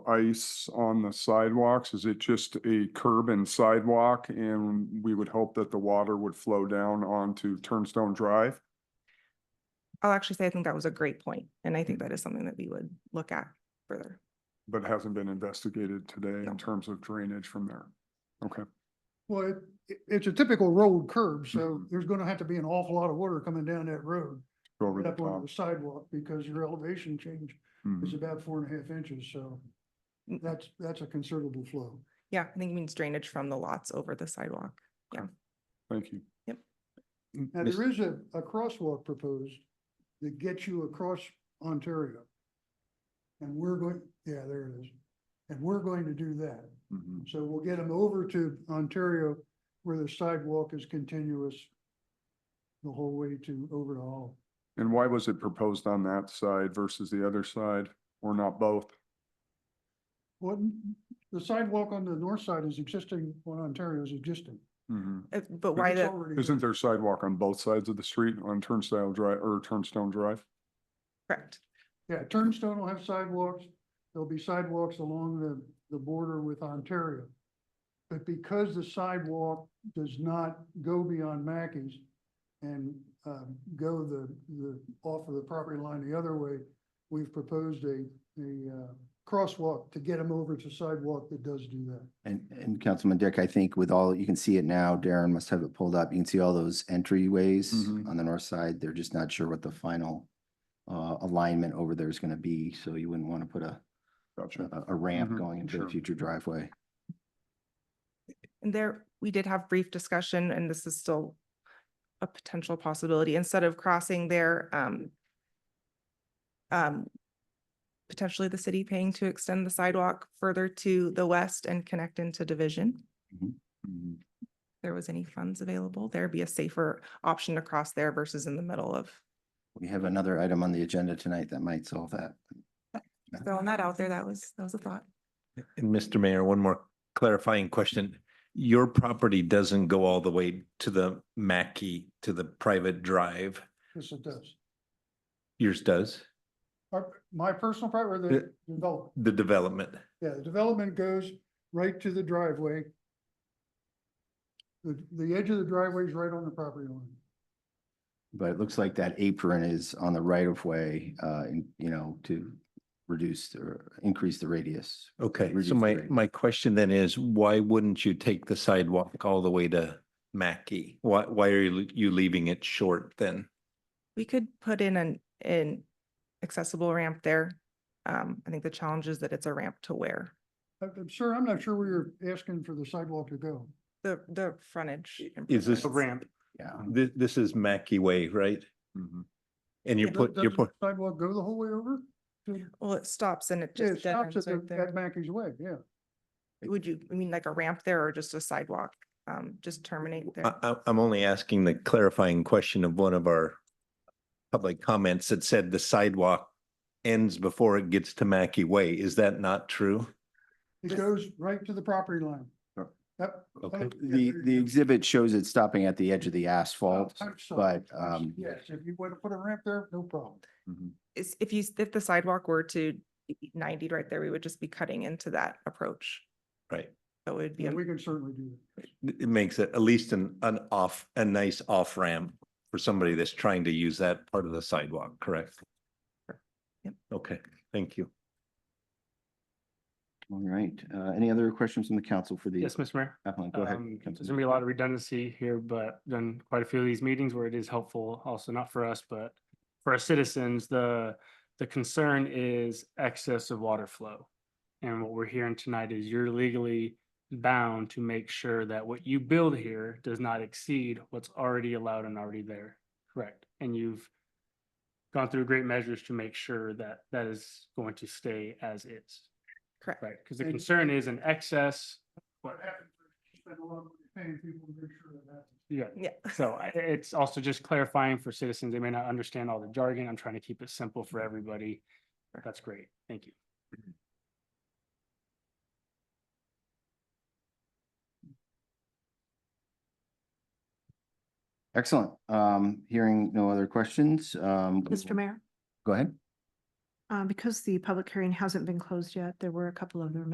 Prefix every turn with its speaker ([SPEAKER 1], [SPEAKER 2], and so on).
[SPEAKER 1] ice on the sidewalks? Is it just a curb and sidewalk? And we would hope that the water would flow down onto Turnstone Drive?
[SPEAKER 2] I'll actually say I think that was a great point, and I think that is something that we would look at further.
[SPEAKER 1] But hasn't been investigated today in terms of drainage from there. Okay,
[SPEAKER 3] Well, it, it- it's a typical road curb, so there's gonna have to be an awful lot of water coming down that road,
[SPEAKER 1] go over the
[SPEAKER 3] up onto
[SPEAKER 1] top.
[SPEAKER 3] the sidewalk, because your elevation change is
[SPEAKER 1] Mhm.
[SPEAKER 3] about four and a half inches, so
[SPEAKER 2] Mm.
[SPEAKER 3] that's, that's a considerable flow.
[SPEAKER 2] Yeah, I think it means drainage from the lots over the sidewalk.
[SPEAKER 1] Thank you. Mm-hmm.
[SPEAKER 2] Yep.
[SPEAKER 3] Now, there is a, a crosswalk proposed that gets you across Ontario. And we're going, yeah, there it is. And we're going to do that.
[SPEAKER 1] Mhm.
[SPEAKER 3] So we'll get them over to Ontario where the sidewalk is continuous the whole way to over to Hall.
[SPEAKER 1] And why was it proposed on that side versus the other side or not both?
[SPEAKER 3] What, the sidewalk on the north side is existing, on Ontario is existing.
[SPEAKER 1] Mhm.
[SPEAKER 2] Uh, But why
[SPEAKER 3] It's
[SPEAKER 2] the,
[SPEAKER 3] already
[SPEAKER 1] Isn't
[SPEAKER 3] there.
[SPEAKER 1] there sidewalk on both sides of the street on Turnstile Drive or Turnstone Drive?
[SPEAKER 2] correct,
[SPEAKER 3] Yeah, Turnstone will have sidewalks. There'll be sidewalks along the, the border with Ontario. But because the sidewalk does not go beyond Mackey's and, um, go the, the, off of the property line the other way, we've proposed a, a, uh, crosswalk to get them over to sidewalk that does do that.
[SPEAKER 4] And, and Councilman Dick, I think with all, you can see it now, Darren must have it pulled up. You can see all those entryways
[SPEAKER 3] Mm-hmm.
[SPEAKER 1] Mhm.
[SPEAKER 4] on the north side. They're just not sure what the final uh, alignment over there is going to be, so you wouldn't want to put a,
[SPEAKER 1] Gotcha.
[SPEAKER 4] a- a ramp
[SPEAKER 3] Mm-hmm.
[SPEAKER 1] Mhm,
[SPEAKER 4] going into
[SPEAKER 1] sure.
[SPEAKER 4] the future driveway.
[SPEAKER 2] and there, we did have brief discussion, and this is still a potential possibility, instead of crossing there, um, um, potentially the city paying to extend the sidewalk further to the west and connect into Division.
[SPEAKER 3] Mm-hmm.
[SPEAKER 1] Mhm.
[SPEAKER 2] There was any funds available, there'd be a safer option to cross there versus in the middle of.
[SPEAKER 4] We have another item on the agenda tonight that might solve that.
[SPEAKER 2] Throwing that out there, that was, that was a thought.
[SPEAKER 5] And Mr. Mayor, one more clarifying question. Your property doesn't go all the way to the Mackey, to the private drive.
[SPEAKER 3] Yes, it does.
[SPEAKER 5] Yours does,
[SPEAKER 3] Our- My personal part or the development,
[SPEAKER 5] the development.
[SPEAKER 3] yeah, the development goes right to the driveway. The, the edge of the driveway is right on the property line.
[SPEAKER 4] But it looks like that apron is on the right of way, uh, and, you know, to reduce or increase the radius.
[SPEAKER 5] Okay,
[SPEAKER 4] Reduce
[SPEAKER 5] so
[SPEAKER 4] the
[SPEAKER 5] my,
[SPEAKER 4] radius.
[SPEAKER 5] my question then is, why wouldn't you take the sidewalk all the way to Mackey? Why, why are you you leaving it short then?
[SPEAKER 2] We could put in an, an accessible ramp there. Um, I think the challenge is that it's a ramp to where
[SPEAKER 3] Uh, uh, Sir, I'm not sure where you're asking for the sidewalk to go.
[SPEAKER 2] the, the frontage.
[SPEAKER 5] Is this,
[SPEAKER 4] Yeah.
[SPEAKER 5] this, this is Mackey Way, right?
[SPEAKER 1] Mhm.
[SPEAKER 5] And you're put,
[SPEAKER 3] Does-
[SPEAKER 5] you're
[SPEAKER 3] doesn't
[SPEAKER 5] put,
[SPEAKER 3] the Sidewalk go the whole way over? to-
[SPEAKER 2] Well, it stops and it
[SPEAKER 3] Yeah, It
[SPEAKER 2] just dead
[SPEAKER 3] stops
[SPEAKER 2] ends
[SPEAKER 3] at
[SPEAKER 2] right
[SPEAKER 3] the-
[SPEAKER 2] there.
[SPEAKER 3] at Mackey's Way, yeah.
[SPEAKER 2] Would you, I mean, like a ramp there or just a sidewalk? Um, just terminate
[SPEAKER 5] I,
[SPEAKER 2] there.
[SPEAKER 5] I, I'm only asking the clarifying question of one of our public comments that said the sidewalk ends before it gets to Mackey Way. Is that not true?
[SPEAKER 3] It
[SPEAKER 2] This-
[SPEAKER 3] goes right to the property line.
[SPEAKER 4] Sure.
[SPEAKER 3] Yep.
[SPEAKER 5] Okay.
[SPEAKER 3] Oh, yeah,
[SPEAKER 4] The,
[SPEAKER 3] there
[SPEAKER 4] the
[SPEAKER 3] you go.
[SPEAKER 4] exhibit shows it stopping at the edge of the
[SPEAKER 3] Oh,
[SPEAKER 4] asphalt.
[SPEAKER 3] I'm sorry.
[SPEAKER 4] but,
[SPEAKER 3] I'm s-
[SPEAKER 4] um,
[SPEAKER 3] Yes, if you want to put a ramp there, no problem.
[SPEAKER 1] Mhm.
[SPEAKER 2] Is, if you, if the sidewalk were to be ninety right there, we would just be cutting into that approach.
[SPEAKER 5] Right.
[SPEAKER 2] So it would be,
[SPEAKER 3] Yeah,
[SPEAKER 2] a-
[SPEAKER 3] we can certainly do that.
[SPEAKER 5] It it makes it at least an, an off, a nice off ramp for somebody that's trying to use that part of the sidewalk, correct?
[SPEAKER 2] Yep.
[SPEAKER 5] Okay, thank you.
[SPEAKER 4] All right, uh, any other questions from the council for the
[SPEAKER 6] Yes, Mr. Mayor.
[SPEAKER 4] appellant? Go ahead.
[SPEAKER 6] Um, There's
[SPEAKER 4] Councilman.
[SPEAKER 6] gonna be a lot of redundancy here, but then quite a few of these meetings where it is helpful, also not for us, but for our citizens, the, the concern is excess of water flow. And what we're hearing tonight is you're legally bound to make sure that what you build here does not exceed what's already allowed and already there. Correct. And you've gone through great measures to make sure that that is going to stay as is.
[SPEAKER 2] correct.
[SPEAKER 6] Right, because the
[SPEAKER 3] And-
[SPEAKER 6] concern is an excess,
[SPEAKER 3] What happens, is you spend a lot of money paying people to make sure that happens.
[SPEAKER 6] yeah,
[SPEAKER 2] Yeah.
[SPEAKER 6] so I- it's also just clarifying for citizens, they may not understand all the jargon, I'm trying to keep it simple for everybody. That's great, thank you.
[SPEAKER 4] Excellent. Um, hearing no other questions, um. we will-
[SPEAKER 7] Mr. Mayor,
[SPEAKER 4] Go ahead.
[SPEAKER 7] Uh, because the public hearing hasn't been closed yet, there were a couple of them